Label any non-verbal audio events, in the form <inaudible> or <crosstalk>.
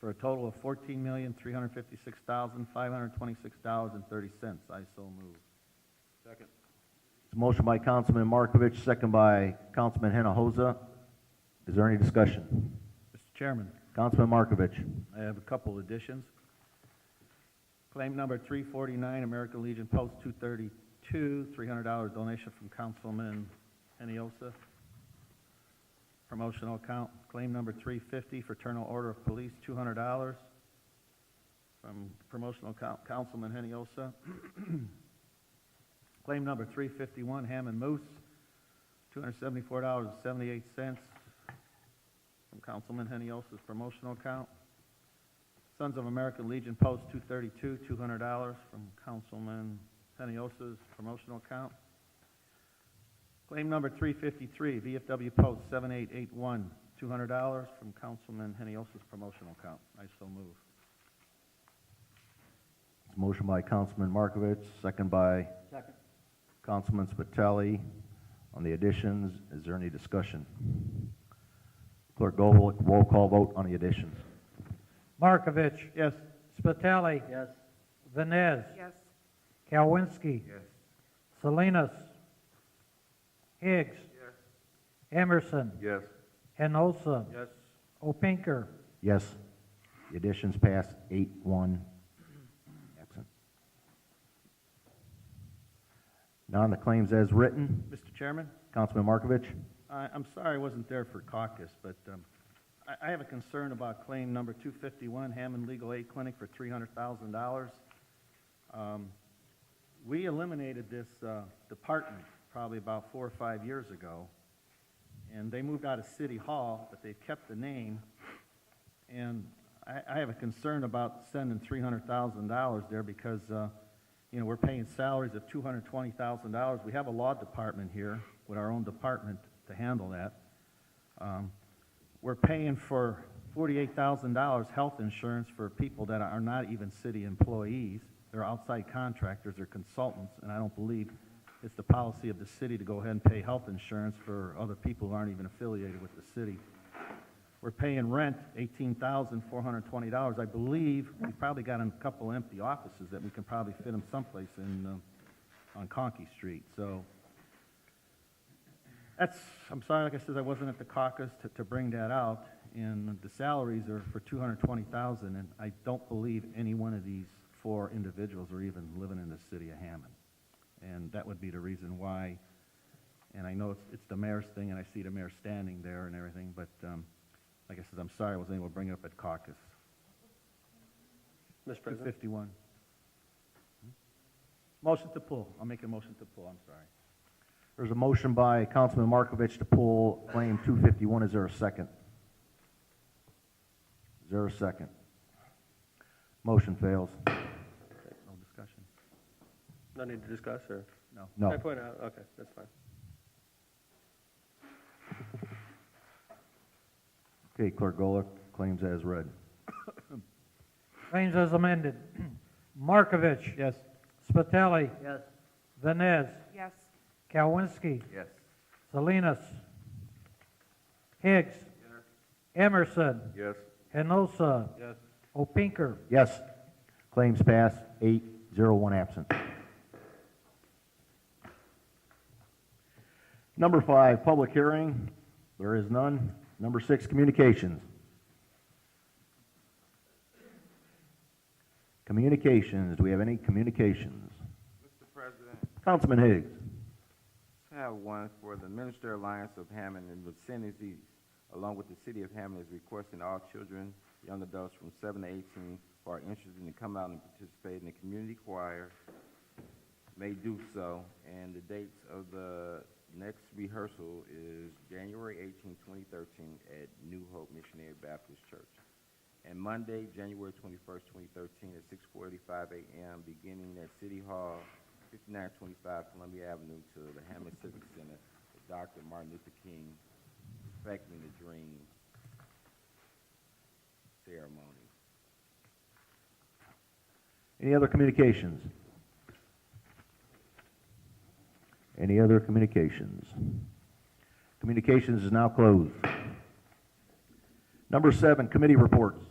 for a total of fourteen million, three hundred fifty-six thousand, five hundred twenty-six dollars and thirty cents. I so move. Second. It's a motion by Councilman Markovich, second by Councilman Hinojosa. Is there any discussion? Mr. Chairman, Councilman Markovich. I have a couple additions. Claim number three forty-nine, American Legion Post two thirty-two, three hundred dollars donation from Councilman Heniosa. Promotional account, claim number three fifty, Fraternal Order of Police, two hundred dollars from promotional account, Councilman Heniosa. <clears throat> Claim number three fifty-one, Hammond Moose, two hundred seventy-four dollars and seventy-eight cents from Councilman Heniosa's promotional account. Sons of American Legion Post 232, $200 from Councilman Heniosa's promotional account. Claim number 353, VFW Post 7881, $200 from Councilman Heniosa's promotional account. I so move. It's a motion by Councilman Markovich, second by Second. Councilman Spitali. On the additions, is there any discussion? Clerk Golick, roll call vote on the additions. Markovich. Yes. Spitali. Yes. Vines. yes, Kalwinski. Yes. Salinas. Higgs. Emerson. Yes. Enosa. Yes. Opinker. Yes, the additions pass eight, one, absent. Now on the claims as written, Mr. Chairman? Councilman Markovich. I, I'm sorry I wasn't there for caucus, but, um, I, I have a concern about claim number two fifty-one, Hammond Legal Aid Clinic for three hundred thousand dollars. Um, we eliminated this, uh, department probably about four or five years ago, and they moved out of City Hall, but they've kept the name. And I, I have a concern about sending three hundred thousand dollars there because, uh, you know, we're paying salaries of two hundred twenty thousand dollars. We have a law department here with our own department to handle that. Um, we're paying for forty-eight thousand dollars health insurance for people that are not even city employees. They're outside contractors, they're consultants, and I don't believe it's the policy of the city to go ahead and pay health insurance for other people who aren't even affiliated with the city. We're paying rent eighteen thousand four hundred and twenty dollars. I believe we probably got a couple empty offices that we can probably fit them someplace in, um, on Conkey Street, so. That's, I'm sorry, like I said, I wasn't at the caucus to, to bring that out, and the salaries are for two hundred and twenty thousand, and I don't believe any one of these four individuals are even living in the city of Hammond. And that would be the reason why, and I know it's, it's the mayor's thing, and I see the mayor standing there and everything, but, um, like I said, I'm sorry I wasn't able to bring it up at caucus. Mr. Two President? fifty-one. Hmm? Motion to pull, I'll make a motion to pull, I'm sorry. There's a motion by Councilman Markovich to pull claim two fifty-one. Is there a second? Is there a second? Motion fails. No discussion, No need to discuss, or? no. No. I point out, okay, that's fine. Okay, Clerk Golick, claims as read. Claims as amended. <clears throat> Markovich. Yes. Spitali. Yes. Vines. yes, Kalwinski. Yes. Salinas. Higgs. Emerson. Yes. Enosa. Yes. Opinker. Yes, claims pass, eight, zero, one absent. Number five, public hearing. There is none. Number six, communications. Communications, do we have any communications? Mr. President, Councilman Higgs. I have one for the Minister Alliance of Hammond and vicinities, along with the City of Hammond, is requesting all children, young adults from seven to eighteen who are interested in come out and participate in the community choir may do so. And the dates of the next rehearsal is January 18, 2013, at New Hope Missionary Baptist Church. And Monday, January 21st, 2013, at 6:45 a.m., beginning at City Hall, 5925 Columbia Avenue to the Hammond Civic Center, with Dr. Martin Luther King Respecting the Dream ceremony. Any other communications? Any other communications? Communications is now closed. Number seven, committee reports.